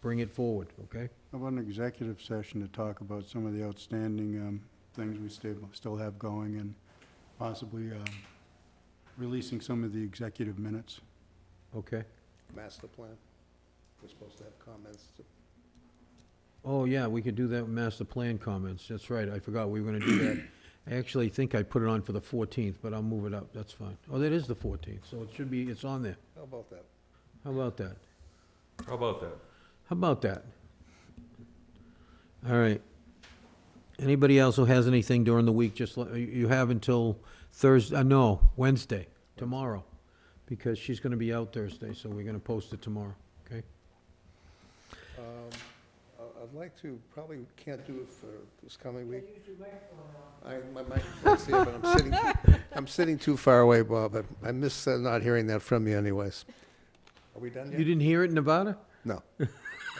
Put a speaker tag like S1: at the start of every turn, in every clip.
S1: bring it forward, okay?
S2: How about an executive session to talk about some of the outstanding um, things we still, still have going and possibly um, releasing some of the executive minutes?
S1: Okay.
S3: master plan. We're supposed to have comments.
S1: Oh, yeah, we could do that with master plan comments. That's right, I forgot we were gonna do that. I actually think I put it on for the 14th, but I'll move it up, that's fine. Oh, that is the 14th, so it should be, it's on there.
S3: How about that?
S1: How about that?
S4: How about that?
S1: How about that? All right. Anybody else who has anything during the week, just, let- you you have until Thursday, uh, no, Wednesday, tomorrow, because she's gonna be out Thursday, so we're gonna post it tomorrow, okay?
S3: Um, I- I'd like to, probably can't do it for this coming week. I, my microphone's here, but I'm sitting, I'm sitting too far away, Bob. I- I miss uh, not hearing that from you anyways. Are we done
S1: You
S3: yet?
S1: didn't hear it in Nevada?
S3: No. I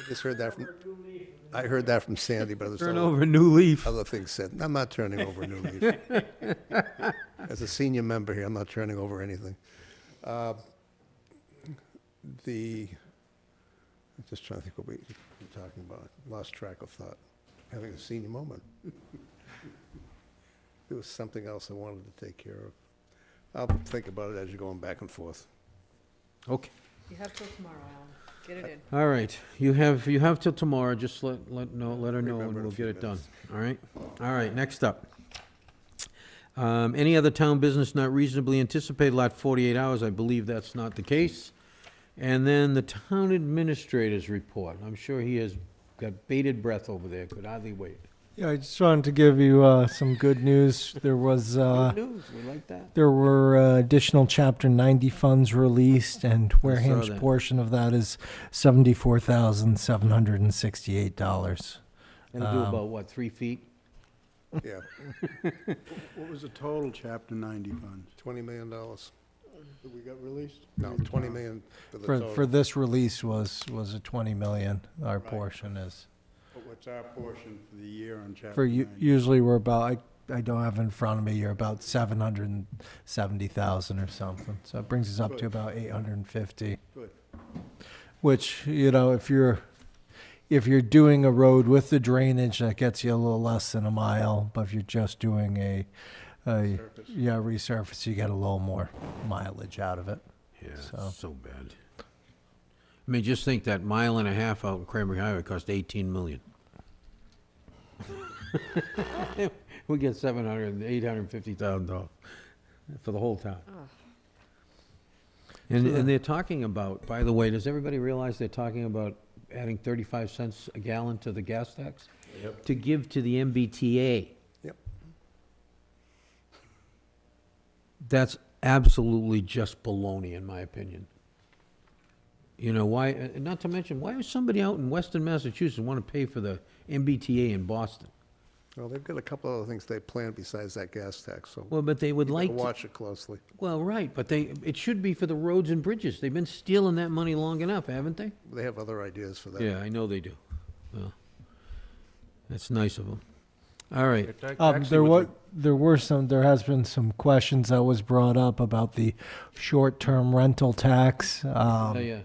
S3: just heard that from, I heard that from Sandy, but there's
S1: Turn
S3: other,
S1: over a new leaf.
S3: other things said. I'm not turning over a new leaf. As a senior member here, I'm not turning over anything. Uh, The, I'm just trying to think what we were talking about. Lost track of thought. Having a senior moment. There was something else I wanted to take care of. I'll think about it as you're going back and forth.
S1: Okay,
S5: You have till tomorrow, Alan. Get it in.
S1: all right. You have, you have till tomorrow, just let, let, know, let her know and
S3: Remember in a
S1: we'll
S3: few
S1: get it done,
S3: minutes.
S1: all right? All right, next up. Um, any other town business not reasonably anticipated, lot forty-eight hours, I believe that's not the case. And then the town administrator's report, I'm sure he has got bated breath over there, could hardly wait.
S6: Yeah, I just wanted to give you uh, some good news. There was uh,
S1: Good news, we like that.
S6: there were uh, additional Chapter 90 funds released, and Wareham's
S1: that.
S6: portion of that is seventy four thousand seven hundred and sixty eight dollars.
S1: It'll do
S6: Um,
S1: about, what, three feet?
S3: Yeah,
S2: What was the total Chapter 90 funds
S3: $20 million. No,
S2: that we got released?
S3: 20 million for the
S6: For
S3: total.
S6: for this release was was a 20 million. Our
S2: Right.
S6: portion is
S2: But What's our portion for the year on Chapter
S6: for u-
S2: 90?
S6: usually we're about I, I don't have in front of me. You're about seven hundred and seventy thousand or something. So it brings us up to
S2: Good.
S6: about eight hundred and fifty.
S2: Good.
S6: Which, you know, if you're, if you're doing a road with the drainage, that gets you a little less than a mile, but if you're just doing a, a,
S2: Surface.
S6: yeah, resurface, you get a little more mileage out of it.
S1: Yeah,
S6: So-
S1: so bad. I mean, just think that mile and a half out in Cranberry Highway cost eighteen million. We get seven hundred and eight hundred and fifty thousand dollars for the whole town. And, and they're talking about, by the way, does everybody realize they're talking about adding thirty-five cents a gallon to the gas tax?
S4: Yep.
S1: To give to the MBTA.
S3: Yep.
S1: That's absolutely just baloney, in my opinion. You know, why, uh, not to mention, why is somebody out in western Massachusetts want to pay for the MBTA in Boston?
S3: Well, they've got a couple other things they plan besides that gas tax, so
S1: Well, but they would
S3: you
S1: like
S3: better
S1: to-
S3: watch it closely.
S1: Well, right, but they, it should be for the roads and bridges. They've been stealing that money long enough, haven't they?
S3: They have other ideas for that.
S1: Yeah, I know they do. Well, that's nice of them. All right.
S6: Um, there was, there were some, there has been some questions that was brought up about the short-term rental tax.
S1: Yeah,
S6: Um,
S1: yeah.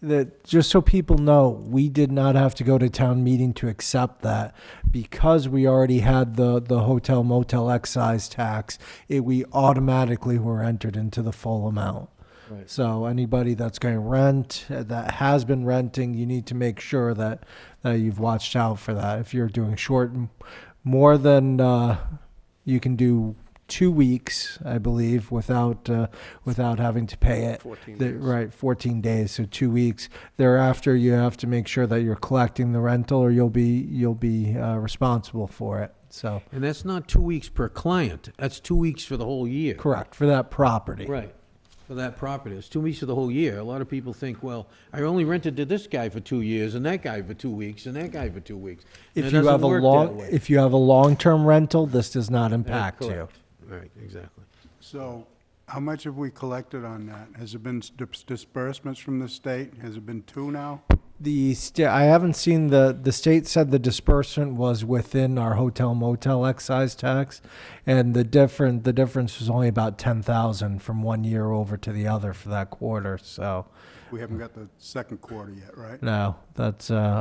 S6: that just so people know, we did not have to go to town meeting to accept that because we already had the, the hotel motel excise tax. It, we automatically were entered into the full amount.
S1: Right.
S6: So anybody that's going to rent uh, that has been renting, you need to make sure that that you've watched out for that. If you're doing short, more than uh, you can do two weeks, I believe, without uh, without having to pay it.
S3: 14
S6: The-
S3: days.
S6: Right, 14 days, so two weeks. Thereafter, you have to make sure that you're collecting the rental, or you'll be you'll be uh, responsible for it. So
S1: And that's not two weeks per client. That's two weeks for the whole year.
S6: correct for that property.
S1: Right, for that property. It's two weeks of the whole year. A lot of people think, well, I only rented to this guy for two years, and that guy for two weeks, and that guy for two weeks. And
S6: If
S1: it
S6: you
S1: doesn't
S6: have a
S1: work that
S6: long
S1: way.
S6: if you have a long term rental, this does not
S1: That's
S6: impact you.
S1: correct. Right, exactly.
S2: So how much have we collected on that? Has it been s- dis- disbursements from the state? Has it been two now?
S6: The sta- I haven't seen the the state said the disbursement was within our hotel motel excise tax, and the different the difference was only about ten thousand from one year over to the other for that quarter. So
S2: We haven't got the second quarter yet, right?
S6: no, that's uh,